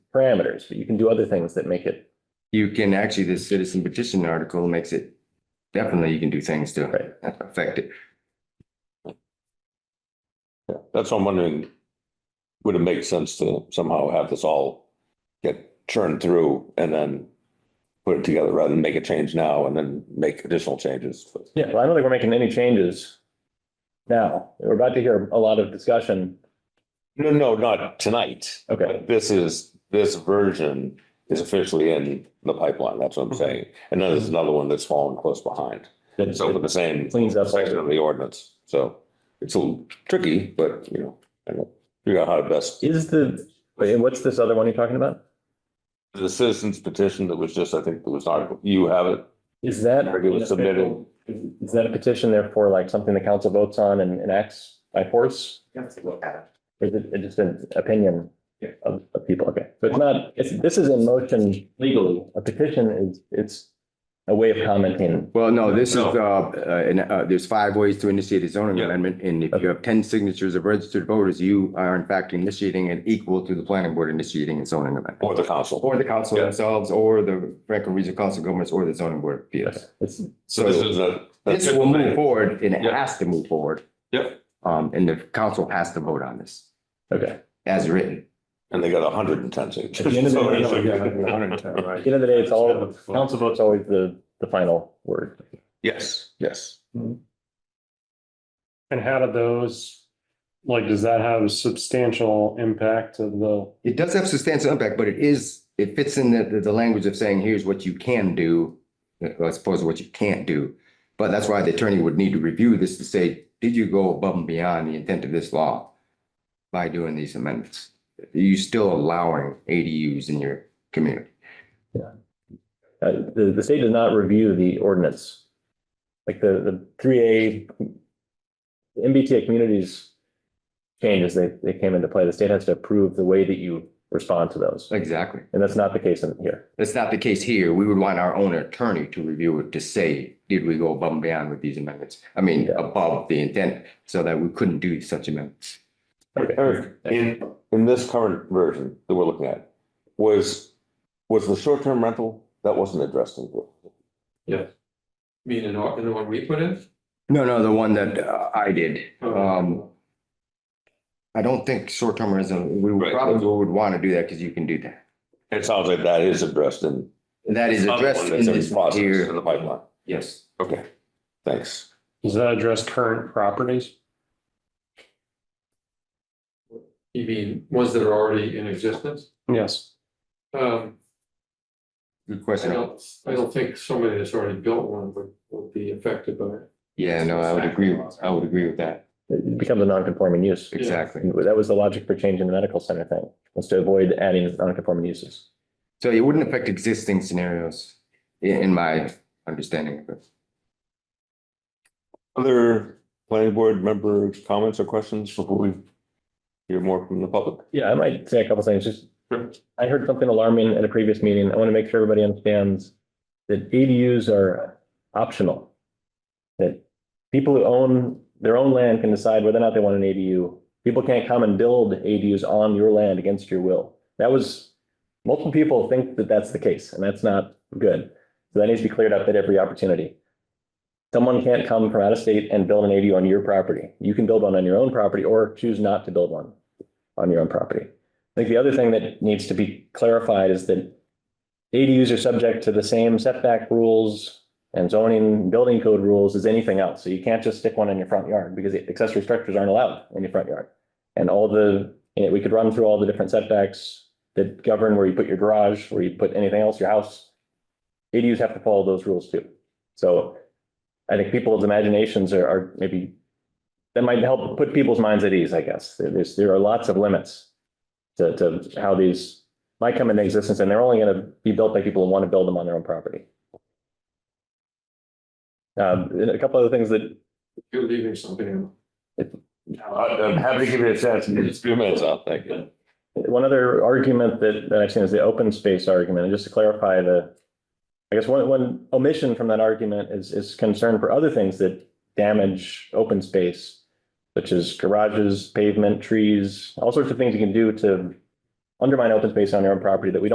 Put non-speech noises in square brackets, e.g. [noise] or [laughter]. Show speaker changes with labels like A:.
A: parameters, but you can do other things that make it,
B: You can actually, this citizen petition article makes it, definitely you can do things to
A: Right.
B: affect it.
C: Yeah, that's what I'm wondering. Would it make sense to somehow have this all get churned through and then put it together rather than make a change now and then make additional changes?
A: yeah, well, I don't think we're making any changes now. We're about to hear a lot of discussion.
C: No, no, not tonight.
A: Okay.
C: This is, this version is officially in the pipeline. That's what I'm saying. And then there's another one that's falling close behind.
A: that-
C: So for the same
A: Cleans up all-
C: section of the ordinance. So it's a little tricky, but you know, I don't figure out how to best.
A: Is the, wait, what's this other one you're talking about?
C: The citizens petition that was just, I think, it was not, you have it.
A: Is that?
C: Or it was submitted.
A: Is that a petition therefore like something the council votes on and enacts by force?
D: You have to look at
A: Or is it just an opinion
D: Yeah.
A: of, of people? Okay, so it's not, it's, this is in motion legally. A petition is, it's a way of commenting.
B: Well, no, this is, uh,
C: No.
B: uh, and, uh, there's five ways to initiate a zoning
C: Yeah.
B: amendment. And if you have ten signatures of registered voters, you are in fact initiating it equal to the planning board initiating a zoning amendment.
C: Or the council.
B: Or the council
C: Yeah.
B: themselves, or the Franklin Regional Council of Governments, or the zoning board of appeals.
A: It's,
C: So this is a.
B: This will move forward and it
C: Yeah.
B: has to move forward.
C: Yep.
B: Um, and the council has to vote on this
A: okay.
B: as written.
C: And they got hundred and ten
A: At the end of
C: signatures.
A: the
C: [laughs] So
A: day,
C: it should
A: yeah, [laughs]
C: be-
A: At the end of the day, it's all, council vote's always the, the final word.
C: Yes, yes.
E: And how do those, like, does that have a substantial impact of the,
B: It does have substantial impact, but it is, it fits in the, the, the language of saying, here's what you can do, uh, as opposed to what you can't do. But that's why the attorney would need to review this to say, did you go above and beyond the intent of this law by doing these amendments? Are you still allowing ADUs in your community?
A: Uh, the, the state does not review the ordinance. Like the, the three A, the MBTA communities changes, they, they came into play. The state has to approve the way that you respond to those.
B: Exactly.
A: And that's not the case in here.
B: That's not the case here. We would want our own attorney to review it to say, did we go above and beyond with these amendments? I mean,
A: Yeah.
B: above the intent, so that we couldn't do such amendments.
C: Eric, in, in this current version that we're looking at, was, was the short-term rental, that wasn't addressed in here.
D: I mean, in our, in the one we put in?
B: No, no, the one that uh, I did.
D: uh,
B: Um, I don't think short-term rental, we would
C: Right.
B: probably would want to do that because you can do that.
C: It sounds like that is addressed in.
B: That is addressed in
C: It's
B: this
C: process in
B: here.
C: the pipeline.
B: Yes.
C: Okay, thanks.
E: does that address current properties?
D: You mean ones that are already in existence?
E: Yes.
D: Um,
B: Good
D: I
B: question.
D: don't, I don't think somebody that's already built one would, would be affected by it.
B: Yeah, no, I would agree. with- I would agree with that.
A: It becomes a non-conforming use.
B: Exactly.
A: And That was the logic for changing the medical center thing, was to avoid adding non-conforming uses.
B: So it wouldn't affect existing scenarios i- in my understanding of it.
C: Other planning board member comments or questions before we hear more from the public?
A: Yeah, I might say a couple things, just,
C: Sure.
A: I heard something alarming at a previous meeting, I want to make sure everybody understands that ADUs are optional. That people who own their own land can decide whether or not they want an ADU. People can't come and build ADUs on your land against your will. That was, multiple people think that that's the case, and that's not good. So that needs to be cleared up at every opportunity. Someone can't come from out of state and build an ADU on your property. You can build one on your own property or choose not to build one on your own property. I think the other thing that needs to be clarified is that ADUs are subject to the same setback rules and zoning, building code rules as anything else. So you can't just stick one in your front yard because accessory structures aren't allowed in your front yard. And all the, and we could run through all the different setbacks that govern where you put your garage, where you put anything else, your house. ADUs have to follow those rules too. So I think people's imaginations are, are maybe, that might help put people's minds at ease, I guess. There- There's, there are lots of limits to, to how these might come into existence, and they're only gonna be built by people who want to build them on their own property. Um, and a couple other things that,
D: You're leaving something in.
C: Uh, I'm happy to give you a chance. It's a few minutes out, thank you.
A: one other argument that, that I've seen is the open space argument, and just to clarify the, I guess one, one omission from that argument is, is concern for other things that damage open space, such as garages, pavement, trees, all sorts of things you can do to undermine open space on your own property that we don't.